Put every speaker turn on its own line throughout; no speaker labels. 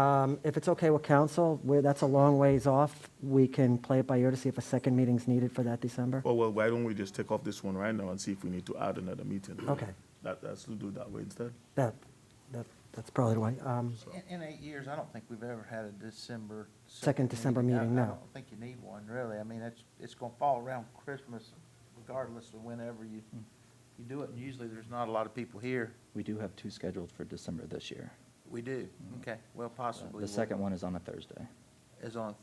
Um, If it's okay with council, we're, that's a long ways off. We can play it by ear to see if a second meeting's needed for that December.
Oh, well, why don't we just take off this one right now and see if we need to add another meeting?
Okay.
That, let's do that way instead.
That, that, that's probably the way. Um,
In, in eight years, I don't think we've ever had a December.
Second December
I-
meeting,
I
no.
don't think you need one, really. I mean, it's, it's gonna fall around Christmas regardless of whenever you,
Hmm.
you do it. And usually there's not a lot of people here.
We do have two scheduled for December this year. Uh,
We do. Okay, well, possibly.
Hmm. The second one is on a Thursday,
Is on,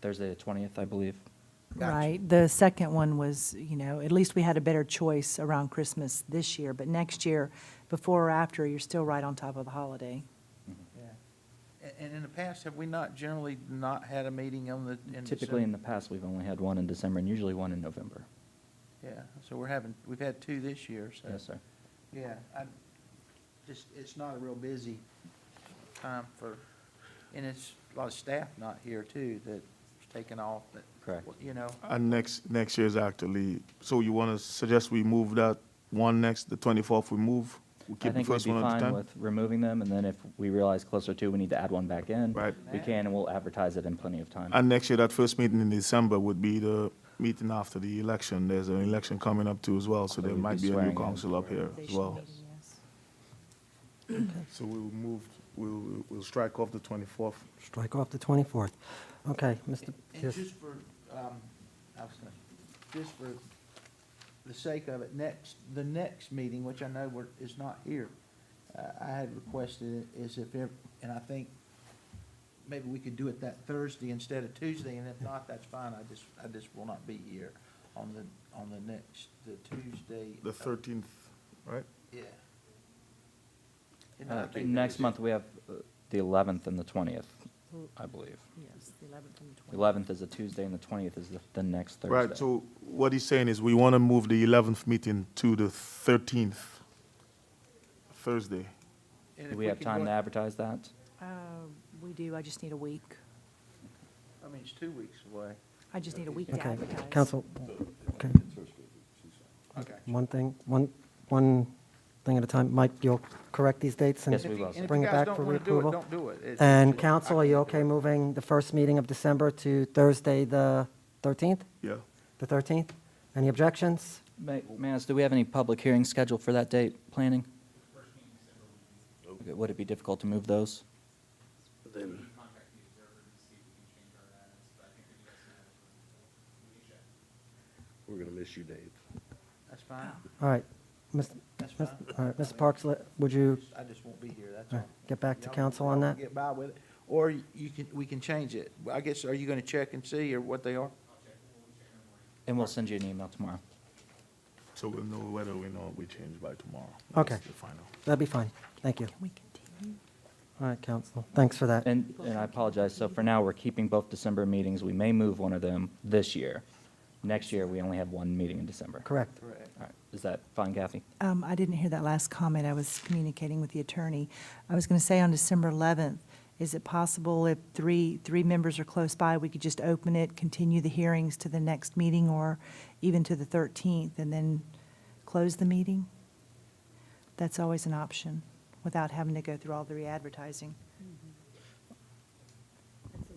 Thursday the 20th, I believe.
Gotcha.
Right, the second one was, you know, at least we had a better choice around Christmas this year, but next year, before or after, you're still right on top of the holiday.
yeah. And, and in the past, have we not generally not had a meeting on the, in December?
Typically, in the past, we've only had one in December and usually one in November.
Yeah, so we're having, we've had two this year, so.
Yes, sir.
Yeah, I, just, it's not a real busy time for, and it's a lot of staff not here too, that's taking off, that.
Correct.
You know,
And next, next year's actually, so you want to suggest we move that one next, the 24th, we move? We
I
keep the
think we'd
first
be
one at a
fine
time?
with removing them, and then if we realize closer to, we need to add one back in.
Right.
We can, and we'll advertise it in plenty of time.
And next year, that first meeting in December would be the meeting after the election. There's an election coming up too as well, so
So
there
we'd
might be
be
a new
swearing in.
council up here as well.
Yes.
So we'll move, we'll, we'll strike off the 24th.
Strike off the 24th. Okay, Mr.
and
Yes.
just for, um, I was gonna, just for the sake of it, next, the next meeting, which I know we're, is not here, uh, I had requested is if, ev- and I think maybe we could do it that Thursday instead of Tuesday, and if not, that's fine, I just, I just will not be here on the, on the next, the Tuesday.
The
of-
13th, right?
Yeah. And I
Uh,
think that
Next
was it.
month, we have uh, the 11th and the 20th, I believe.
Yes, the 11th and the
The
20th.
11th is a Tuesday, and the 20th is the- the next Thursday.
Right, so what he's saying is we want to move the 11th meeting to the 13th, Thursday.
And
Do
if
we have
could
time
go-
to advertise that?
Uh, We do, I just need a week.
I mean, it's two weeks away.
I just need a week to
Okay,
advertise.
council, okay,
Okay.
one thing, one, one thing at a time. Mike, you'll correct these dates and
Yes, we will, sir.
bring it back for
And if you guys don't
reapproval?
want to do it, don't do it. It's-
And
it's-
council, are you okay moving the first meeting of December to Thursday, the 13th?
Yeah.
The 13th? Any objections?
May, may I ask, do we have any public hearings scheduled for that date, planning? Okay, Would it be difficult to move those?
Then,
contact the observer to see if we can change our ads, but I think that you guys can have it. We can check.
we're gonna miss you, Dave.
That's fine.
All right, Ms.
That's
Ms.
fine.
all right, Mr. Parks, let- would you,
I just won't be here, that's
all
all.
right, get back to
Y'all-
council on
y'all
that?
Get by with it. Or you can, we can change it. I guess, are you going to check and see or what they are?
And we'll send you an email tomorrow.
So we'll know whether we know we change by tomorrow.
Okay.
That's the final.
That'd be fine, thank you.
We continue.
All right, council, thanks for that.
And, and I apologize, so for now, we're keeping both December meetings. We may move one of them this year. Next year, we only have one meeting in December.
Correct.
Correct.
All right, is that fine, Kathy?
Um, I didn't hear that last comment. I was communicating with the attorney. I was going to say on December 11th, is it possible if three, three members are close by, we could just open it, continue the hearings to the next meeting or even to the 13th and then close the meeting? That's always an option without having to go through all the re-advertising.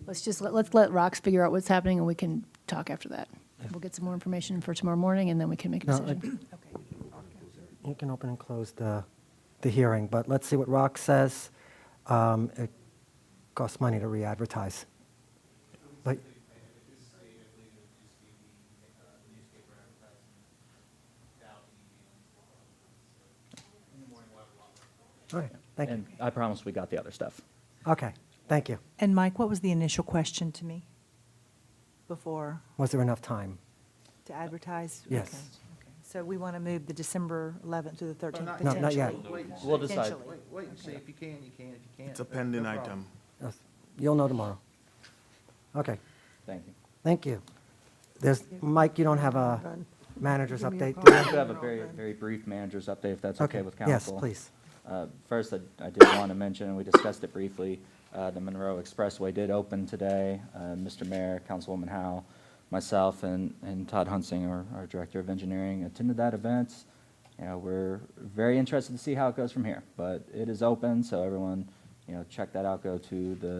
Let's just, let- let's let Rox figure out what's happening, and we can talk after that. We'll get some more information for tomorrow morning, and then we can make a
No, I-
decision.
Okay.
You can open and close the, the hearing, but let's see what Rock says. Um, It costs money to re-advertise. But,
uh,
all right, thank you.
And I promise we got the other stuff.
Okay, thank you.
And Mike, what was the initial question to me before?
Was there enough time?
To advertise?
Yes.
Okay, okay. So we want to move the December 11th to the 13th?
Not
No, not yet.
yet. Wait and see.
We'll decide.
Potentially.
Wait, wait and see. If you can, you can. If you can't.
It's a
no- no
pending
problem.
item.
Yes, You'll know tomorrow. Okay,
Thank you.
thank you. There's, Mike, you don't have a manager's update?
I
do
do have a very, very brief manager's update, if that's
you?
okay with council.
Yes, please.
Uh, First, I- I did want to mention, and we discussed it briefly, uh, the Monroe Expressway did open today. Uh, Mr. Mayor, Councilwoman Howe, myself, and and Todd Hunsing, our our Director of Engineering, attended that event. You know, We're very interested to see how it goes from here, but it is open, so everyone you know, check that out, go to the